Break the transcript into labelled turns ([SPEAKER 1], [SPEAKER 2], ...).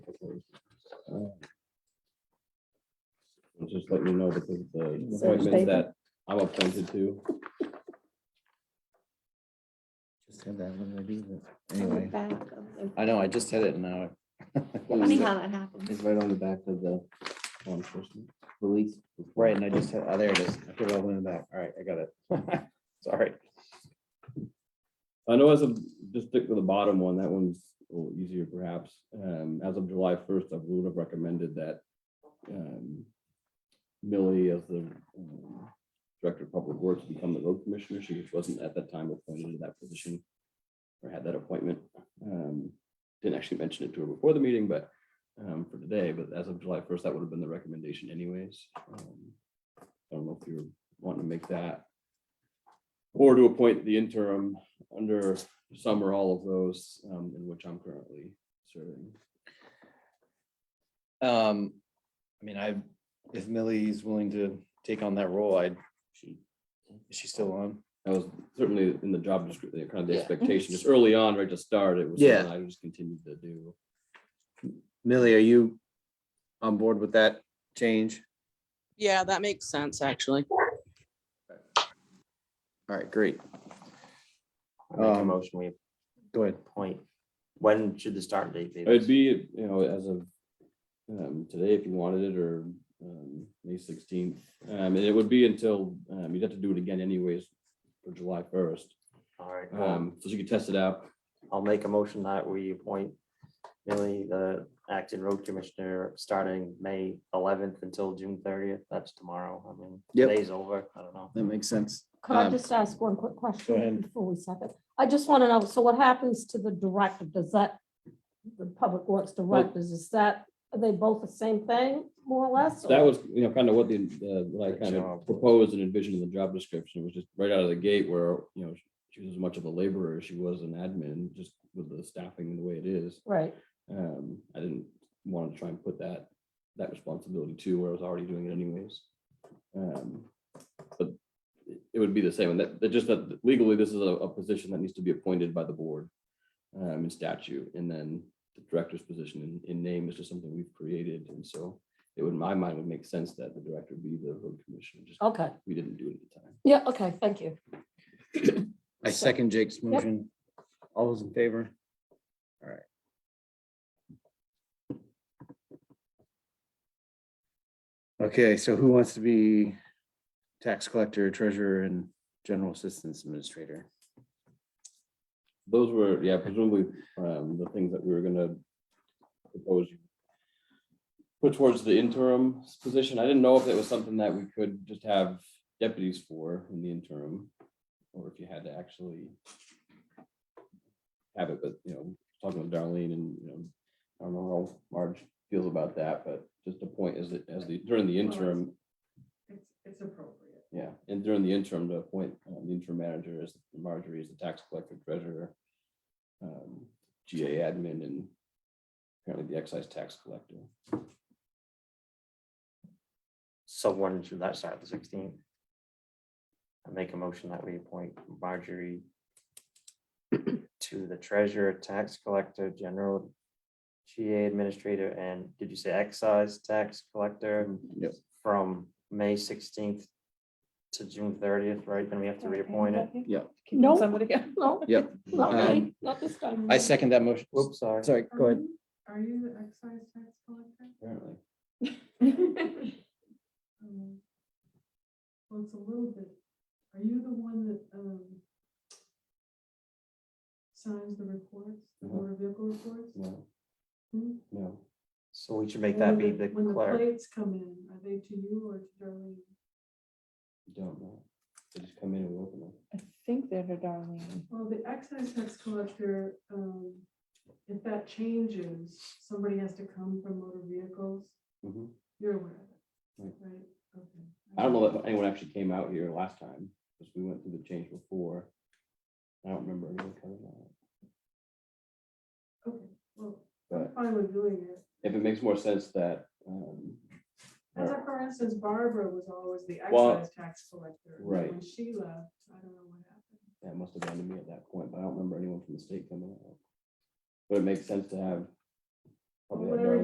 [SPEAKER 1] letting you know because of the
[SPEAKER 2] Search
[SPEAKER 1] appointments
[SPEAKER 2] paper.
[SPEAKER 1] that I'm appointed to.
[SPEAKER 3] Just had that when I do this.
[SPEAKER 2] on the
[SPEAKER 3] Anyway,
[SPEAKER 2] back of the-
[SPEAKER 3] I know, I just had it and now.
[SPEAKER 2] Funny
[SPEAKER 3] I-
[SPEAKER 2] how that happens.
[SPEAKER 1] It's right on the back of the law enforcement police.
[SPEAKER 3] Right, and I just had, oh, there it is. I put it all in the back. All right, I got it. Sorry.
[SPEAKER 1] I know as of, just stick with the bottom one, that one's a little easier perhaps. Um, as of July first, I would have recommended that um, Millie as the um, Director of Public Works become the road commissioner. She wasn't at that time appointed to that position or had that appointment. Um, Didn't actually mention it to her before the meeting, but um, for today, but as of July first, that would have been the recommendation anyways. Um, I don't know if you're wanting to make that or to appoint the interim under some or all of those um, in which I'm currently serving.
[SPEAKER 3] Um, I mean, I, if Millie's willing to take on that role, I, she, is she still on?
[SPEAKER 1] That was certainly in the job description, kind of the
[SPEAKER 3] Yeah.
[SPEAKER 1] expectation, just early on, right to start, it was.
[SPEAKER 3] Yeah.
[SPEAKER 1] something I just continued to do.
[SPEAKER 3] Millie, are you on board with that change?
[SPEAKER 4] Yeah, that makes sense, actually.
[SPEAKER 3] All right, great.
[SPEAKER 5] I Make a
[SPEAKER 3] Um,
[SPEAKER 5] motion, we
[SPEAKER 3] Go ahead.
[SPEAKER 5] appoint. When should the start date be?
[SPEAKER 1] It'd be, you know, as of um, today, if you wanted it, or um, May sixteenth. um, And it would be until, um, you'd have to do it again anyways for July first.
[SPEAKER 5] All right, well,
[SPEAKER 1] Um, So you could test it out.
[SPEAKER 5] I'll make a motion that we appoint Millie, the acting road commissioner, starting May eleventh until June thirtieth. That's tomorrow. I mean,
[SPEAKER 3] Yep.
[SPEAKER 5] today's over. I don't know.
[SPEAKER 3] That makes sense.
[SPEAKER 6] Could I
[SPEAKER 3] Um,
[SPEAKER 6] just ask one quick question
[SPEAKER 3] ahead.
[SPEAKER 6] before we stop it? I just want to know, so what happens to the director? Does that, the public works directors, is that, are they both the same thing, more or less?
[SPEAKER 1] That
[SPEAKER 6] or-
[SPEAKER 1] was, you know, kind of what the, uh, what I
[SPEAKER 5] The
[SPEAKER 1] kind of
[SPEAKER 5] job.
[SPEAKER 1] proposed and envisioned in the job description was just right out of the gate where, you know, she was as much of a laborer as she was an admin, just with the staffing the way it is.
[SPEAKER 6] Right,
[SPEAKER 1] Um, I didn't want to try and put that, that responsibility to where I was already doing it anyways. Um, But it- it would be the same, and that, that just that legally, this is a, a position that needs to be appointed by the board um, in statute, and then the director's position in, in name is just something we've created, and so it would, in my mind, would make sense that the director be the road commissioner, just
[SPEAKER 6] okay.
[SPEAKER 1] we didn't do it at the time.
[SPEAKER 6] Yeah, okay, thank you.
[SPEAKER 3] I second Jake's motion. All those in favor? All right. Okay, so who wants to be tax collector, treasurer, and general assistance administrator?
[SPEAKER 1] Those were, yeah, presumably, um, the things that we were gonna propose. you Put towards the interim position. I didn't know if it was something that we could just have deputies for in the interim. Or if you had to actually. Have it, but, you know, talking with Darlene and, you know, I don't know how Marge feels about that, but just the point is that as the, during the interim.
[SPEAKER 7] It's, it's appropriate.
[SPEAKER 1] Yeah, and during the interim, to appoint um, the interim manager as Marjorie is the tax collector treasurer. um, GA admin and apparently the excise tax collector.
[SPEAKER 5] So when should that start? The sixteenth? I make a motion that we appoint Marjorie to the treasurer, tax collector, general GA administrator, and did you say excise tax collector?
[SPEAKER 3] Yep.
[SPEAKER 5] From May sixteenth to June thirtieth, right? Then we have to reappoint it.
[SPEAKER 3] Yeah.
[SPEAKER 6] No.
[SPEAKER 7] Keeping somebody else.
[SPEAKER 6] No.
[SPEAKER 3] Yep.
[SPEAKER 6] Not
[SPEAKER 3] Um,
[SPEAKER 6] me, not this time.
[SPEAKER 3] I second that motion.
[SPEAKER 5] Whoops, sorry.
[SPEAKER 3] Sorry, go ahead.
[SPEAKER 7] Are you the excise tax collector?
[SPEAKER 1] Apparently,
[SPEAKER 7] Um, Well, it's a little bit, are you the one that, um, signs the reports, the
[SPEAKER 1] Uh-huh.
[SPEAKER 7] motor vehicle reports?
[SPEAKER 1] no,
[SPEAKER 7] Hmm?
[SPEAKER 1] no.
[SPEAKER 5] So we should make
[SPEAKER 7] And
[SPEAKER 5] that be
[SPEAKER 7] when
[SPEAKER 5] the
[SPEAKER 7] When the
[SPEAKER 5] clerk.
[SPEAKER 7] plates come in, are they to you or to Darlene?
[SPEAKER 1] don't know. They just come in and we open them.
[SPEAKER 2] I think they're the Darlene.
[SPEAKER 7] Well, the excise tax collector, um, if that changes, somebody has to come from motor vehicles. Mm-hmm.
[SPEAKER 1] Mhm.
[SPEAKER 7] You're aware of it,
[SPEAKER 5] Hmm.
[SPEAKER 1] Right.
[SPEAKER 7] right? Okay.
[SPEAKER 1] I don't know that anyone actually came out here last time, because we went through the change before. I don't remember anyone coming out,
[SPEAKER 7] Okay, well, I'm
[SPEAKER 1] but
[SPEAKER 7] fine with doing it.
[SPEAKER 1] if it makes more sense that, um,
[SPEAKER 7] As a, for instance, Barbara was always the
[SPEAKER 1] Well,
[SPEAKER 7] excise tax collector. and then
[SPEAKER 1] right.
[SPEAKER 7] When she left, I don't know what happened.
[SPEAKER 1] That must have been to me at that point, but I don't remember anyone from the state coming out. But it makes sense to have. probably have
[SPEAKER 7] Where
[SPEAKER 1] Darrell